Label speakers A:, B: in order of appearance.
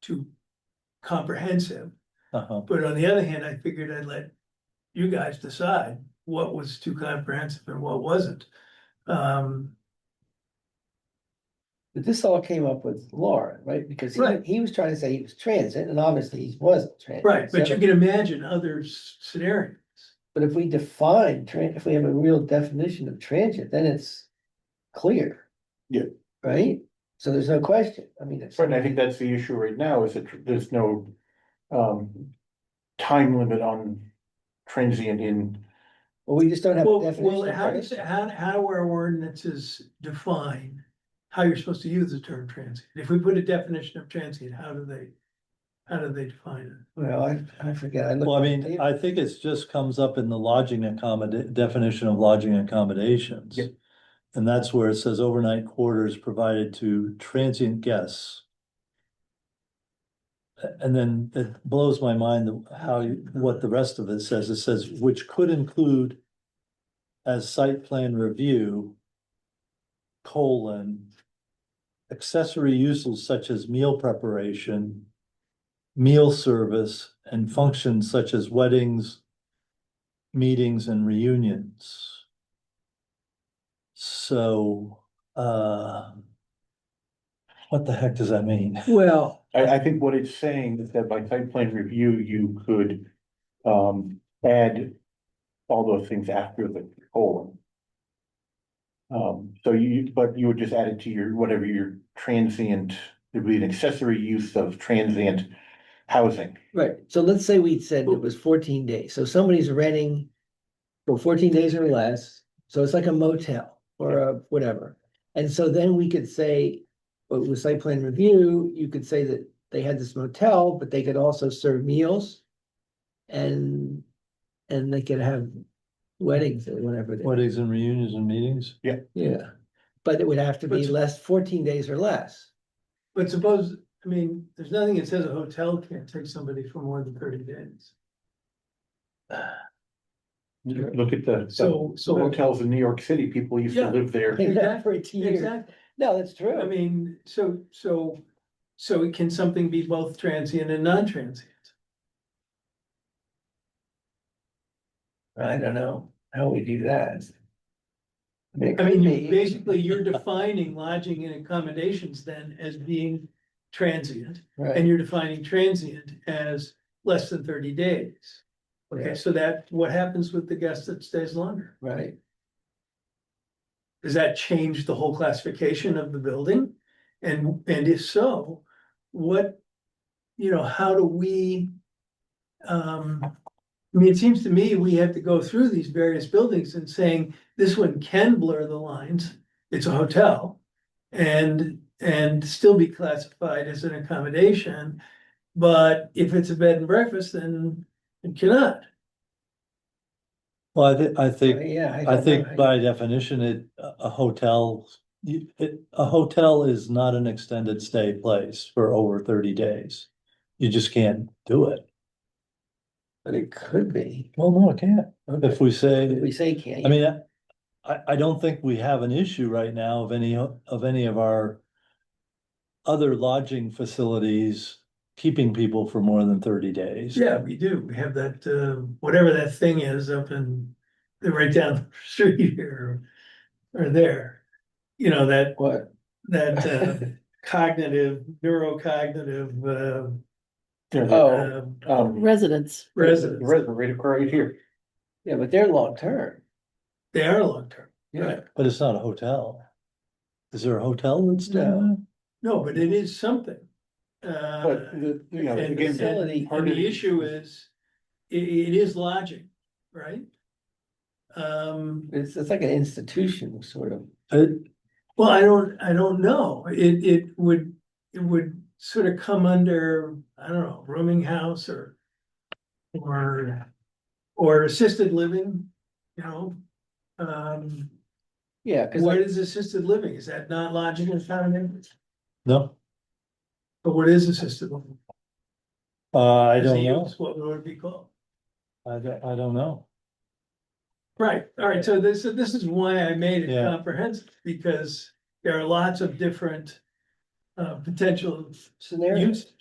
A: too comprehensive.
B: Uh-huh.
A: But on the other hand, I figured I'd let you guys decide what was too comprehensive and what wasn't. Um,
C: But this all came up with Laura, right? Because he,
A: Right.
C: he was trying to say he was transit and obviously he wasn't transit.
A: right, but
C: So-
A: you can imagine other s- scenarios.
C: But if we define, tran- if we have a real definition of transient, then it's clear.
B: Yeah.
C: Right? So there's no question. I mean, it's.
B: Right, and I think that's the issue right now, is that there's no um time limit on transient in.
C: Well, we just don't have a
A: Well,
C: definition.
A: well,
C: of
A: how does,
C: transient.
A: how, how our ordinances define how you're supposed to use the term transient? If we put a definition of transient, how do they, how do they define it?
C: Well, I, I forget. looked
D: Well, I
C: at the
D: mean,
C: table.
D: I think it's just comes up in the lodging accommoda- definition of lodging accommodations.
B: Yeah.
D: And that's where it says overnight quarters provided to transient guests. A- And then it blows my mind the- how you, what the rest of it says. It says, which could include as site plan review, colon, accessory uses such as meal preparation, meal service and functions such as weddings, meetings and reunions. So, uh, what the heck does that mean?
C: Well,
B: I, I think what it's saying is that by site plan review, you could um add all those things after the colon. Um, so you, but you would just add it to your, whatever your transient, it'd be an accessory use of transient housing.
C: right. So let's say we said it was fourteen days. So somebody's renting for fourteen days or less. So it's like a motel or a whatever. And so then we could say, well, with site plan review, you could say that they had this motel, but they could also serve meals. And, and they could have weddings or whatever. they-
D: Weddings and reunions and meetings?
C: Yeah. But it would have to be
A: But-
C: less, fourteen days or less.
A: But suppose, I mean, there's nothing that says a hotel can't take somebody for more than thirty days.
B: Look at the.
A: So, so.
B: Hotels in New York City, people used to
A: Yeah.
B: live there.
C: For 18 years.
A: Exactly.
C: No, that's true.
A: I mean, so, so, so can something be both transient and non-transient?
C: I don't know how we do that.
A: I mean, you- basically, you're defining lodging and accommodations then as being transient, and you're defining transient as less than thirty days. Okay,
C: Yeah.
A: so that, what happens with the guest that stays longer?
C: Right,
A: Does that change the whole classification of the building? And, and if so, what, you know, how do we? Um, I mean, it seems to me we have to go through these various buildings and saying, this one can blur the lines, it's a hotel. And, and still be classified as an accommodation, but if it's a bed and breakfast, then it cannot.
D: Well, I thi- I think
C: yeah.
D: I
C: don't
D: think
C: know.
D: by definition, it, a a hotel, you- it, a hotel is not an extended stay place for over thirty days. You just can't do it.
C: But it could be.
D: Well, no, it can't. If we say,
C: We say can't.
D: I mean, I- I, I don't think we have an issue right now of any, of any of our other lodging facilities keeping people for more than thirty days.
A: Yeah, we do. We have that, uh, whatever that thing is up in, they're right down the street here or there. You know, that,
C: What?
A: that uh, cognitive, neurocognitive,
B: There's a,
A: uh,
C: Oh.
A: uh,
B: um,
E: residents.
A: residents.
B: resident right across right here.
C: Yeah, but they're long-term.
A: They are long-term.
C: Yeah.
D: But it's not a hotel. Is there a hotel that's
C: No.
D: down?
A: No, but it is something. Uh,
B: But the, you know,
A: and, and
B: again, that
C: facility-
B: part
A: and
B: of
A: the issue is, i- it is lodging, right? Um,
C: It's, it's like an institution sort of.
D: It,
A: Well, I don't, I don't know. It, it would, it would sort of come under, I don't know, rooming house or. Or, or assisted living, you know? Um,
C: Yeah, cause
A: what
C: like,
A: is assisted living? Is that not lodging and founding?
D: no,
A: But what is assisted living?
D: uh, I
A: As a
D: don't know.
A: use, What would it be called?
D: I don't, I don't know.
A: Right, all right, so this, so this is why I made it
D: Yeah.
A: comprehensive, because there are lots of different. Uh, potential
C: scenario.
A: uses.